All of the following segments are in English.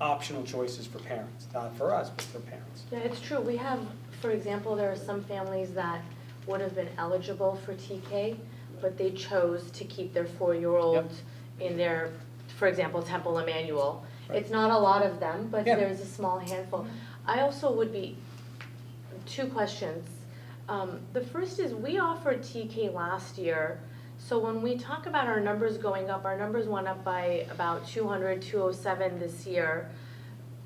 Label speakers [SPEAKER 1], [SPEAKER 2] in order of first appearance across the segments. [SPEAKER 1] optional choices for parents, not for us, but for parents.
[SPEAKER 2] Yeah, it's true, we have, for example, there are some families that would have been eligible for TK, but they chose to keep their four-year-old in their, for example, Temple Emmanuel. It's not a lot of them, but
[SPEAKER 1] Yeah.
[SPEAKER 2] there's a small handful. I also would be, two questions. Um, the first is, we offered TK last year, so when we talk about our numbers going up, our numbers went up by about 200, 207 this year.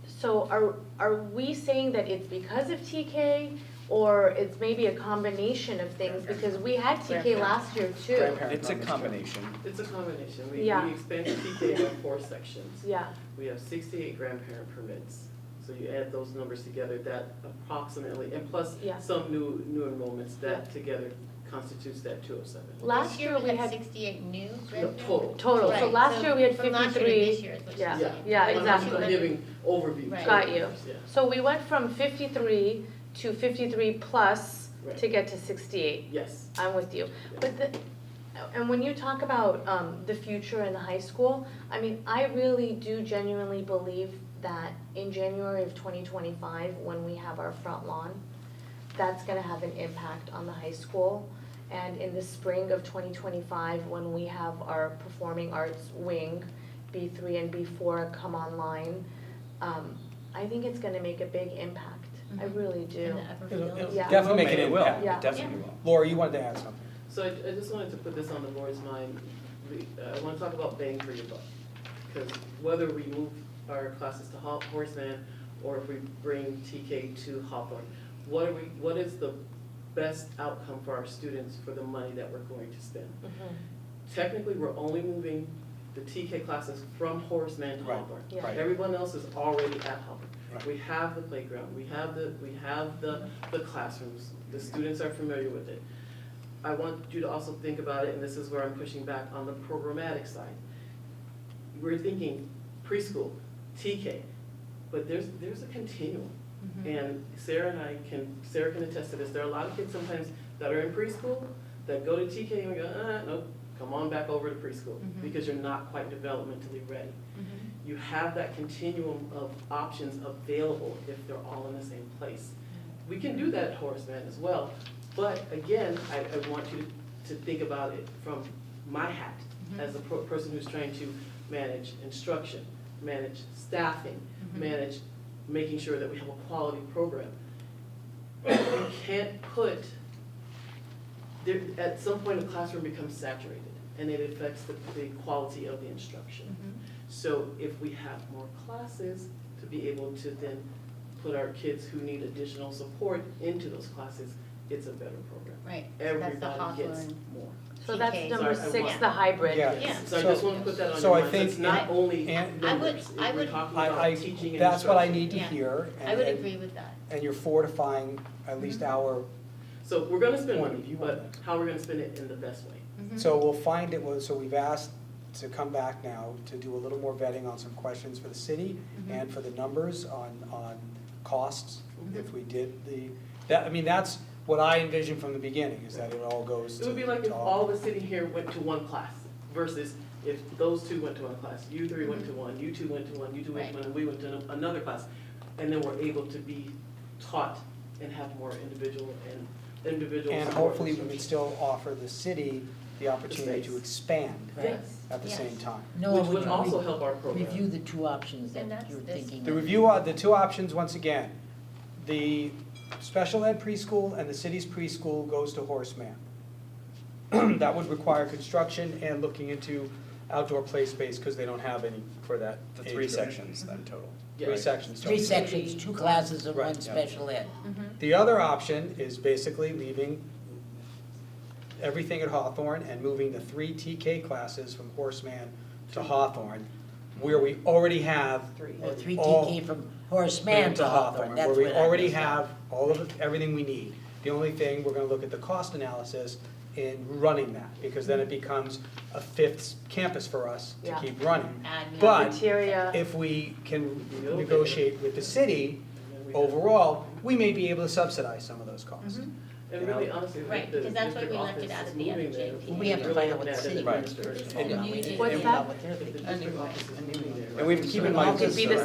[SPEAKER 2] So are, are we saying that it's because of TK, or it's maybe a combination of things? Because we had TK last year too.
[SPEAKER 1] Grandparent
[SPEAKER 3] It's a
[SPEAKER 1] numbers, too.
[SPEAKER 3] combination.
[SPEAKER 4] It's a combination, we,
[SPEAKER 2] Yeah.
[SPEAKER 4] we expanded TK by four sections.
[SPEAKER 2] Yeah,
[SPEAKER 4] We have sixty-eight grandparent permits, so you add those numbers together, that approximately, and plus
[SPEAKER 2] Yeah.
[SPEAKER 4] some new, new enrollments, that together constitutes that two oh seven.
[SPEAKER 2] last year we
[SPEAKER 5] had
[SPEAKER 2] had,
[SPEAKER 5] sixty-eight new revenue.
[SPEAKER 4] Total.
[SPEAKER 2] total, so
[SPEAKER 5] Right,
[SPEAKER 2] last year we had
[SPEAKER 5] From last year to
[SPEAKER 2] fifty-three.
[SPEAKER 5] this year is what
[SPEAKER 2] Yeah.
[SPEAKER 5] you're saying.
[SPEAKER 2] Yeah,
[SPEAKER 4] I'm- I'm
[SPEAKER 2] exactly.
[SPEAKER 4] giving overview.
[SPEAKER 5] Right.
[SPEAKER 2] Got you.
[SPEAKER 4] Yeah.
[SPEAKER 2] So we went from fifty-three to fifty-three plus to get to sixty-eight.
[SPEAKER 4] Yes,
[SPEAKER 2] I'm with you, but the, and when you talk about um the future in the high school, I mean, I really do genuinely believe that in January of twenty twenty-five, when we have our front lawn, that's gonna have an impact on the high school. And in the spring of twenty twenty-five, when we have our performing arts wing, B three and B four come online, um I think it's gonna make a big impact, I
[SPEAKER 5] Mhm.
[SPEAKER 2] really do.
[SPEAKER 5] In the upper
[SPEAKER 1] It'll- it'll
[SPEAKER 5] field.
[SPEAKER 2] Yeah.
[SPEAKER 1] Definitely make an
[SPEAKER 3] It will.
[SPEAKER 1] impact.
[SPEAKER 2] Yeah.
[SPEAKER 3] It definitely will.
[SPEAKER 1] Laura, you wanted to add something.
[SPEAKER 4] so I, I just wanted to put this on the board's mind, we, uh, I wanna talk about bang for your buck. Cause whether we move our classes to Ho- Horseman, or if we bring TK to Hawthorne, what are we, what is the best outcome for our students for the money that we're going to spend?
[SPEAKER 2] Mhm.
[SPEAKER 4] Technically, we're only moving the TK classes from Horseman to
[SPEAKER 1] Right.
[SPEAKER 4] Hawthorne.
[SPEAKER 2] Yeah.
[SPEAKER 1] Right.
[SPEAKER 4] Everyone else is already at Hopper.
[SPEAKER 1] Right.
[SPEAKER 4] We have the playground, we have the, we have the, the classrooms, the students are familiar with it. I want you to also think about it, and this is where I'm pushing back on the programmatic side. We're thinking preschool, TK, but there's, there's a continuum.
[SPEAKER 5] Mm-hmm.
[SPEAKER 4] And Sarah and I can, Sarah can attest to this, there are a lot of kids sometimes that are in preschool that go to TK and we go, uh, nope, come on back over to preschool,
[SPEAKER 5] Mhm.
[SPEAKER 4] because you're not quite developmentally ready
[SPEAKER 5] Mhm.
[SPEAKER 4] you have that continuum of options available if they're all in the same place. We can do that at Horace Mann as well, but again, I, I want you to think about it from my hat as a pro- person who's trying to manage instruction, manage staffing,
[SPEAKER 5] Mhm.
[SPEAKER 4] manage making sure that we have a quality program. You can't put, there, at some point, a classroom becomes saturated, and it affects the, the quality of the instruction.
[SPEAKER 5] Mhm.
[SPEAKER 4] So if we have more classes, to be able to then put our kids who need additional support into those classes, it's a better program.
[SPEAKER 5] Right, so that's the
[SPEAKER 4] Everybody gets
[SPEAKER 5] Hawthorne.
[SPEAKER 4] more.
[SPEAKER 2] So that's
[SPEAKER 5] TK.
[SPEAKER 2] number
[SPEAKER 4] Sorry, I
[SPEAKER 2] six,
[SPEAKER 5] want-
[SPEAKER 2] the hybrid.
[SPEAKER 1] Yeah.
[SPEAKER 5] Yeah.
[SPEAKER 4] So I just
[SPEAKER 1] So-
[SPEAKER 4] wanna put that on
[SPEAKER 1] so
[SPEAKER 4] your
[SPEAKER 1] I
[SPEAKER 4] mind, it's
[SPEAKER 1] think-
[SPEAKER 4] not only
[SPEAKER 1] and-
[SPEAKER 5] I would-
[SPEAKER 4] numbers,
[SPEAKER 5] I
[SPEAKER 4] we're
[SPEAKER 5] would-
[SPEAKER 4] talking
[SPEAKER 1] I, I,
[SPEAKER 4] about teaching and instruction.
[SPEAKER 1] that's what I need to
[SPEAKER 5] Yeah.
[SPEAKER 1] hear.
[SPEAKER 5] I would
[SPEAKER 1] and-
[SPEAKER 5] agree Mm-hmm. with that.
[SPEAKER 1] And you're fortifying at least our,
[SPEAKER 4] So we're gonna spend
[SPEAKER 1] Point of
[SPEAKER 4] money,
[SPEAKER 1] view on
[SPEAKER 4] but how we're gonna spend it in the best way.
[SPEAKER 5] Mhm.
[SPEAKER 1] so we'll find it, was- so we've asked to come back now to do a little more vetting on some questions for the city
[SPEAKER 5] Mhm.
[SPEAKER 4] Mm-hmm.
[SPEAKER 1] and for the numbers on, on costs, if we did the, that, I mean, that's what I envisioned from the beginning, is that it all goes to.
[SPEAKER 4] It would be like if
[SPEAKER 1] to
[SPEAKER 4] all the city here went to one class versus if those two went to one class, you three went to one, you two went to one, you two went to one, and we went to another class. And then we're able to be taught and have more individual and individual
[SPEAKER 1] And
[SPEAKER 4] support
[SPEAKER 1] hopefully we can
[SPEAKER 4] instruction.
[SPEAKER 1] still offer the city the opportunity to
[SPEAKER 4] space.
[SPEAKER 1] expand
[SPEAKER 4] Yes,
[SPEAKER 1] at the
[SPEAKER 5] Yes.
[SPEAKER 1] same time.
[SPEAKER 6] Noah,
[SPEAKER 4] which
[SPEAKER 6] would
[SPEAKER 4] would also
[SPEAKER 6] you
[SPEAKER 4] help our
[SPEAKER 6] re-
[SPEAKER 4] program.
[SPEAKER 6] review the two options that
[SPEAKER 5] And that's
[SPEAKER 6] you're
[SPEAKER 5] this
[SPEAKER 6] thinking?
[SPEAKER 1] The
[SPEAKER 6] of?
[SPEAKER 1] review, uh, the two options, once again, the special ed preschool and the city's preschool goes to Horseman. That would require construction and looking into outdoor play space, because they don't have any for that
[SPEAKER 3] The
[SPEAKER 1] age
[SPEAKER 3] three
[SPEAKER 1] group.
[SPEAKER 3] sections then total.
[SPEAKER 1] Three sections.
[SPEAKER 6] Three sections, two classes and
[SPEAKER 1] Right,
[SPEAKER 6] one
[SPEAKER 1] yeah.
[SPEAKER 6] special ed.
[SPEAKER 5] Mhm.
[SPEAKER 1] The other option is basically leaving everything at Hawthorne and moving the three TK classes from Horseman to Hawthorne, where we already have
[SPEAKER 4] Three.
[SPEAKER 6] Or three
[SPEAKER 1] All-
[SPEAKER 6] TK from Horace Mann to Hawthorne, that's what I
[SPEAKER 1] Where we already
[SPEAKER 6] missed out.
[SPEAKER 1] have all of, the- everything we need. The only thing, we're gonna look at the cost analysis in running that, because then it
[SPEAKER 6] Mm-hmm.
[SPEAKER 1] becomes a fifth campus for us to
[SPEAKER 2] Yeah.
[SPEAKER 1] keep running.
[SPEAKER 5] Admin.
[SPEAKER 1] But-
[SPEAKER 2] Cafeteria.
[SPEAKER 1] If we can negotiate with the city overall, we may be able to subsidize some of those
[SPEAKER 6] Mm-hmm.
[SPEAKER 1] costs.
[SPEAKER 5] Mhm.
[SPEAKER 4] And really honestly,
[SPEAKER 5] Right,
[SPEAKER 4] like the
[SPEAKER 5] because that's why
[SPEAKER 4] district
[SPEAKER 5] we left
[SPEAKER 4] office
[SPEAKER 5] it out
[SPEAKER 4] is
[SPEAKER 5] of the
[SPEAKER 4] moving
[SPEAKER 5] other
[SPEAKER 4] there.
[SPEAKER 5] JP.
[SPEAKER 6] We have to find out what the
[SPEAKER 4] Really
[SPEAKER 6] city
[SPEAKER 4] look at
[SPEAKER 6] administrators
[SPEAKER 4] that
[SPEAKER 6] hold on, we
[SPEAKER 4] as
[SPEAKER 6] need to
[SPEAKER 2] What's
[SPEAKER 6] figure
[SPEAKER 2] that?
[SPEAKER 6] out what they're
[SPEAKER 4] If the
[SPEAKER 6] thinking.
[SPEAKER 4] district office is moving there.
[SPEAKER 3] And we have to keep in mind
[SPEAKER 2] Could be the